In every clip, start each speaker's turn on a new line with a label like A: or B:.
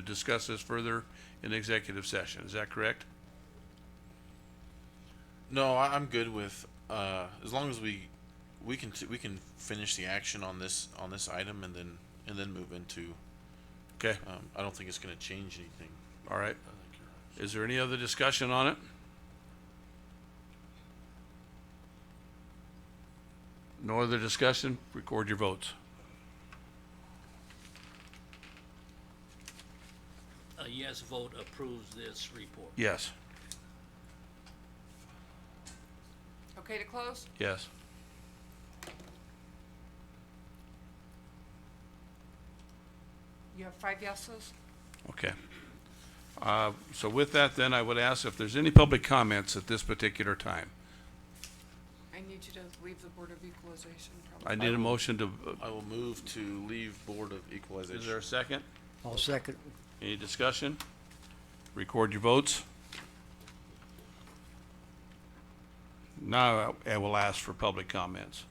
A: to discuss this further in executive session. Is that correct?
B: No, I, I'm good with uh, as long as we we can t- we can finish the action on this on this item and then and then move into.
A: Okay,
B: Um, I don't think it's going to change anything.
A: all right.
B: I think you're right.
A: Is there any other discussion on it? No other discussion? Record your votes.
C: A yes vote approves this report.
A: Yes,
D: Okay to close?
A: yes.
D: You have five yeses?
A: Okay. Uh, So with that, then, I would ask if there's any public comments at this particular time.
D: I need you to leave the Board of Equalization
A: I
D: probably.
A: need a motion to, uh,
B: I will move to leave Board of Equalization.
A: is there a second?
E: I'll second.
A: Any discussion? Record your votes. Now, I I will ask for public comments.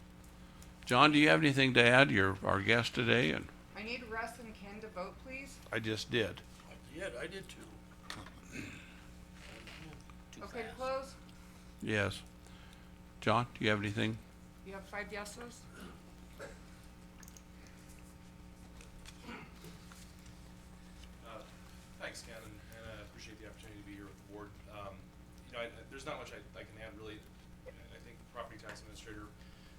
A: John, do you have anything to add? You're our guest today, and
D: I need Russ and Ken to vote, please.
A: I just did.
F: Yeah, I did too.
C: Too
D: Okay to
C: fast.
D: close?
A: Yes. John, do you have anything?
D: You have five yeses?
G: Uh, Thanks, Ken, and and I appreciate the opportunity to be here with the board. Um, You know, I- I- there's not much I I can add, really. I I think the property tax administrator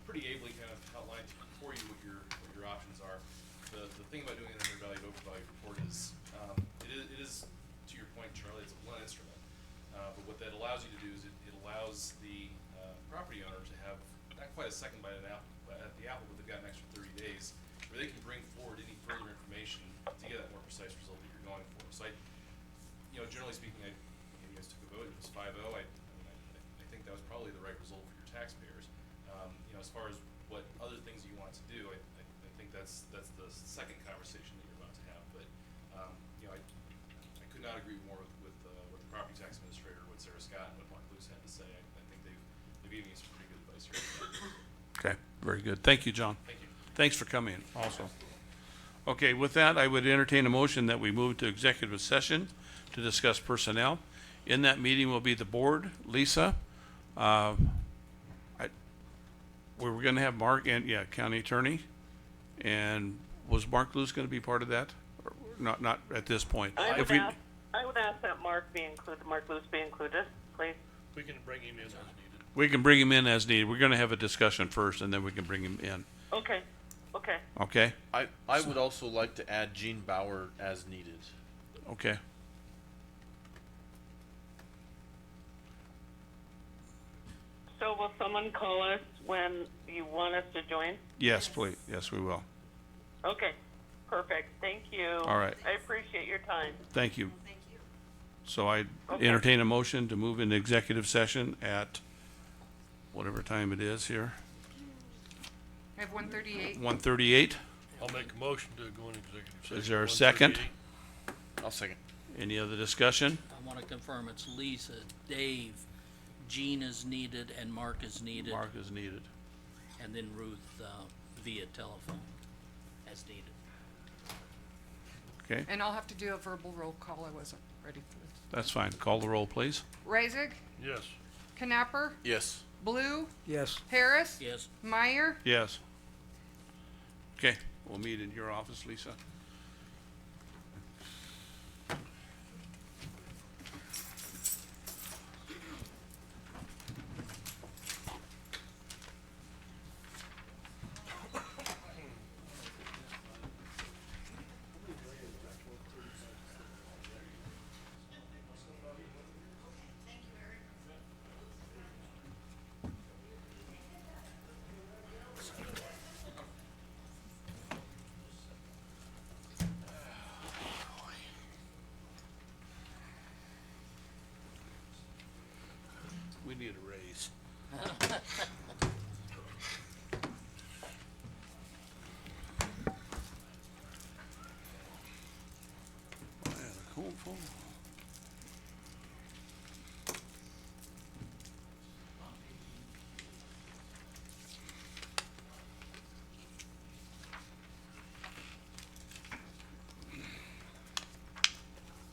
G: pretty ably kind of outlined for you what your, what your options are. The, the thing about doing an undervalued overvalued report is, um, it is, it is, to your point, Charlie, it's a blunt instrument. Uh, But what that allows you to do is it it allows the uh, property owner to have not quite a second bite at the apple, but at the apple, but they've got an extra thirty days where they can bring forward any further information to get that more precise result that you're going for. So I, you know, generally speaking, I, you guys took a vote, it was five oh, I, I mean, I, I think that was probably the right result for your taxpayers. Um, you know, as far as what other things you want to do, I, I, I think that's, that's the second conversation that you're about to have, but, um, you know, I, I could not agree more with, with, uh, what the property tax administrator, what Sarah Scott, and what Mark Luce had to say, I, I think they've, they've given you some pretty good advice here,
A: Okay, very good. Thank you, John.
G: thank you.
A: Thanks for coming in also. Okay, with that, I would entertain a motion that we move to executive session to discuss personnel. In that meeting will be the board, Lisa, uh, I, we were gonna have Mark and, yeah, county attorney. And was Mark Lewis gonna be part of that? Or Not, not at this point.
H: I
A: If
H: would
A: we-
H: ask, I would ask that Mark be included, Mark Luce be included, please.
F: We can bring him in as needed.
A: We can bring him in as needed. We're gonna have a discussion first and then we can bring him in,
H: Okay, okay.
A: okay?
B: I I would also like to add Gene Bauer as needed.
A: Okay.
H: So will someone call us when you want us to join?
A: Yes, please. Yes, we will.
H: Okay, perfect, thank you.
A: All right.
H: I appreciate your time.
A: Thank you.
D: Thank you.
A: So I
H: Okay.
A: entertain a motion to move into executive session at whatever time it is here,
D: I have one thirty-eight.
A: one thirty-eight.
F: I'll make a motion to go in executive session.
A: Is there a second?
F: 138.
B: I'll second.
A: Any other discussion?
C: I want to confirm it's Lisa, Dave, Gene is needed, and Mark is needed,
A: Mark is needed.
C: and then Ruth uh, via telephone as needed.
A: Okay,
D: And I'll have to do a verbal roll call. I wasn't ready for this.
A: that's fine. Call the roll, please.
D: Raisig,
F: Yes.
D: Knapper,
B: Yes.
D: Blue,
E: Yes.
D: Harris.
C: Yes,
D: Meyer.
A: Yes. Okay, we'll meet in your office, Lisa. We need a raise. Man, the cold phone.